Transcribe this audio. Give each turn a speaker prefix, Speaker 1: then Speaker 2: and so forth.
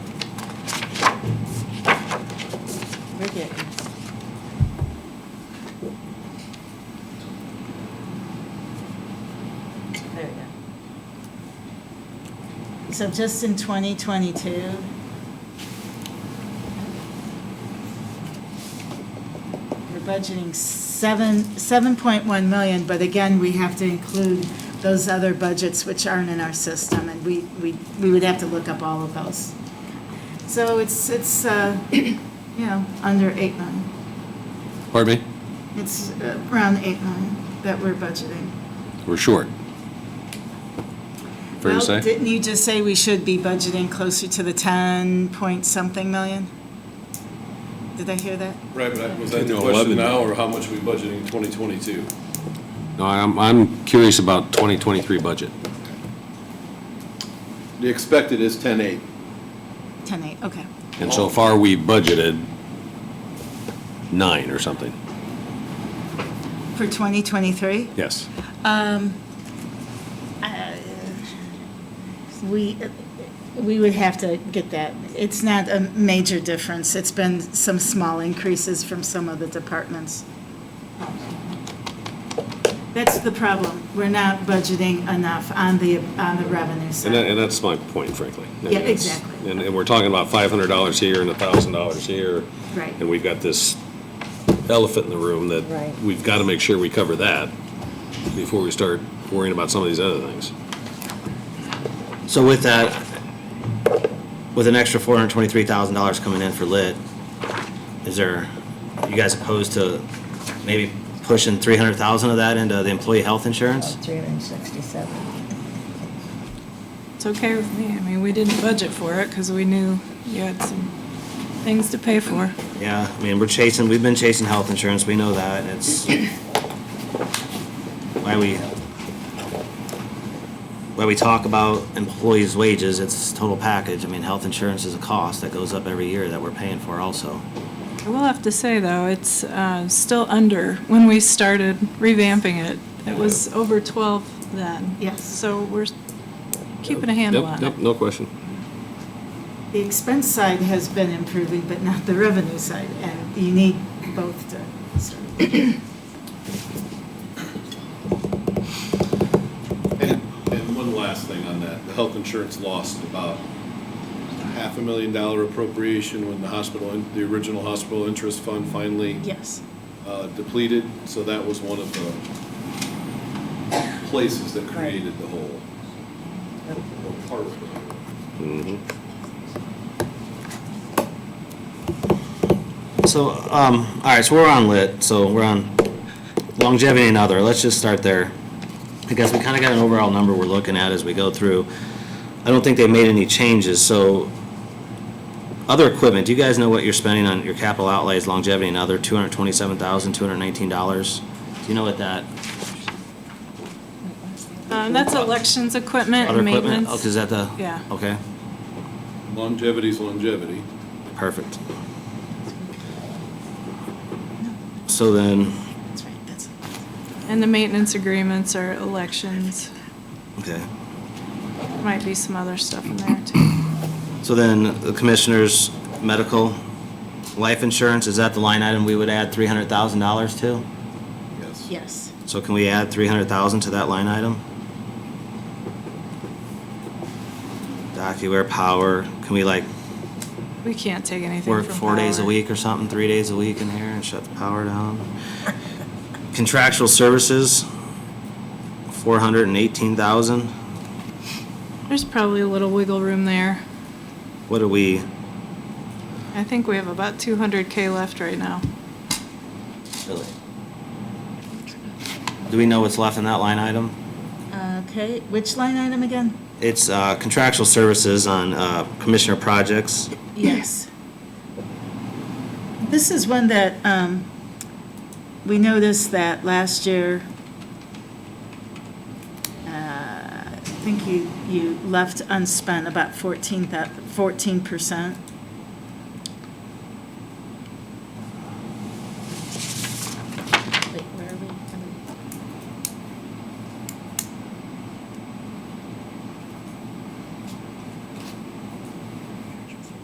Speaker 1: forgiveness. There we go. So just in 2022, we're budgeting seven, 7.1 million, but again, we have to include those other budgets which aren't in our system, and we, we, we would have to look up all of those. So it's, it's, uh, you know, under 8 million.
Speaker 2: Pardon me?
Speaker 1: It's uh, around 8 million that we're budgeting.
Speaker 2: We're short. Fair to
Speaker 1: Well,
Speaker 2: say?
Speaker 1: Didn't you just say we should be budgeting closer to the 10 point something million? Did I hear that?
Speaker 3: Right, but I- was that
Speaker 2: No,
Speaker 3: the question
Speaker 2: 11.
Speaker 3: now, or how much are we budgeting in 2022?
Speaker 2: No, I'm, I'm curious about 2023 budget.
Speaker 4: The expected is 10.8.
Speaker 1: 10.8, okay.
Speaker 2: And
Speaker 1: Oh.
Speaker 2: so far, we budgeted nine or something.
Speaker 1: For 2023?
Speaker 2: Yes.
Speaker 1: Uh, We, we would have to get that. It's not a major difference. It's been some small increases from some of the departments. That's the problem. We're not budgeting enough on the, on the revenue
Speaker 2: And that,
Speaker 1: side.
Speaker 2: and that's my point, frankly. I mean,
Speaker 1: Yeah,
Speaker 2: it's-
Speaker 1: exactly.
Speaker 2: And, and we're talking about $500 here and $1,000 here.
Speaker 1: Right.
Speaker 2: And we've got this elephant in the room that
Speaker 5: Right.
Speaker 2: we've got to make sure we cover that before we start worrying about some of these other things.
Speaker 6: So with that, with an extra four hundred twenty-three thousand dollars coming in for lit, is there, you guys opposed to maybe pushing three hundred thousand of that into the employee health insurance?
Speaker 5: 367.
Speaker 7: It's okay with me. I mean, we didn't budget for it because we knew you had some things to pay for.
Speaker 6: Yeah, I mean, we're chasing, we've been chasing health insurance, we know that, and it's why we, why we talk about employees' wages, it's total package. I mean, health insurance is a cost that goes up every year that we're paying for also.
Speaker 7: I will have to say, though, it's uh, still under when we started revamping it. It was over 12 then.
Speaker 1: Yes.
Speaker 7: So we're keeping a handle
Speaker 2: Yep,
Speaker 7: on
Speaker 2: Yep,
Speaker 7: it.
Speaker 2: no question.
Speaker 1: The expense side has been improving, but not the revenue side, and you need both to sort of
Speaker 3: And, and one last thing on that, the health insurance lost about half a million dollar appropriation when the hospital, in- the original hospital interest fund finally
Speaker 1: Yes.
Speaker 3: uh, depleted, so that was one of the places that created the hole, or part of it.
Speaker 6: So, um, all right, so we're on lit, so we're on longevity and other, let's just start there. I guess we kinda got an overall number we're looking at as we go through. I don't think they made any changes, so other equipment, do you guys know what you're spending on your capital outlays, longevity and other, two hundred twenty-seven thousand, two hundred nineteen dollars? Do you know what that,
Speaker 7: Um, That's elections equipment
Speaker 6: other
Speaker 7: and
Speaker 6: equipment?
Speaker 7: Uh, maintenance.
Speaker 6: Oh, is that the?
Speaker 7: Yeah.
Speaker 6: Okay,
Speaker 3: Longevity's longevity.
Speaker 6: perfect. So then,
Speaker 1: That's right, that's,
Speaker 7: And the maintenance agreements are elections.
Speaker 6: okay.
Speaker 7: Might be some other stuff in there, too.
Speaker 6: So then, the commissioner's medical life insurance, is that the line item we would add three hundred thousand dollars to?
Speaker 3: Yes.
Speaker 1: yes.
Speaker 6: So can we add three hundred thousand to that line item? DocuWare power, can we like
Speaker 7: We can't take anything
Speaker 6: work
Speaker 7: from
Speaker 6: four days a
Speaker 7: power.
Speaker 6: week or something, three days a week in here and shut the power down? Contractual services, four hundred and eighteen thousand,
Speaker 7: There's probably a little wiggle room there.
Speaker 6: what do we,
Speaker 7: I think we have about 200K left right now.
Speaker 6: do we know what's left in that line item?
Speaker 1: Uh, Okay, which line item again?
Speaker 6: It's uh, contractual services on uh, commissioner projects.
Speaker 1: Yes. This is one that, um, we noticed that last year, uh, I think you, you left unspent about 14, percent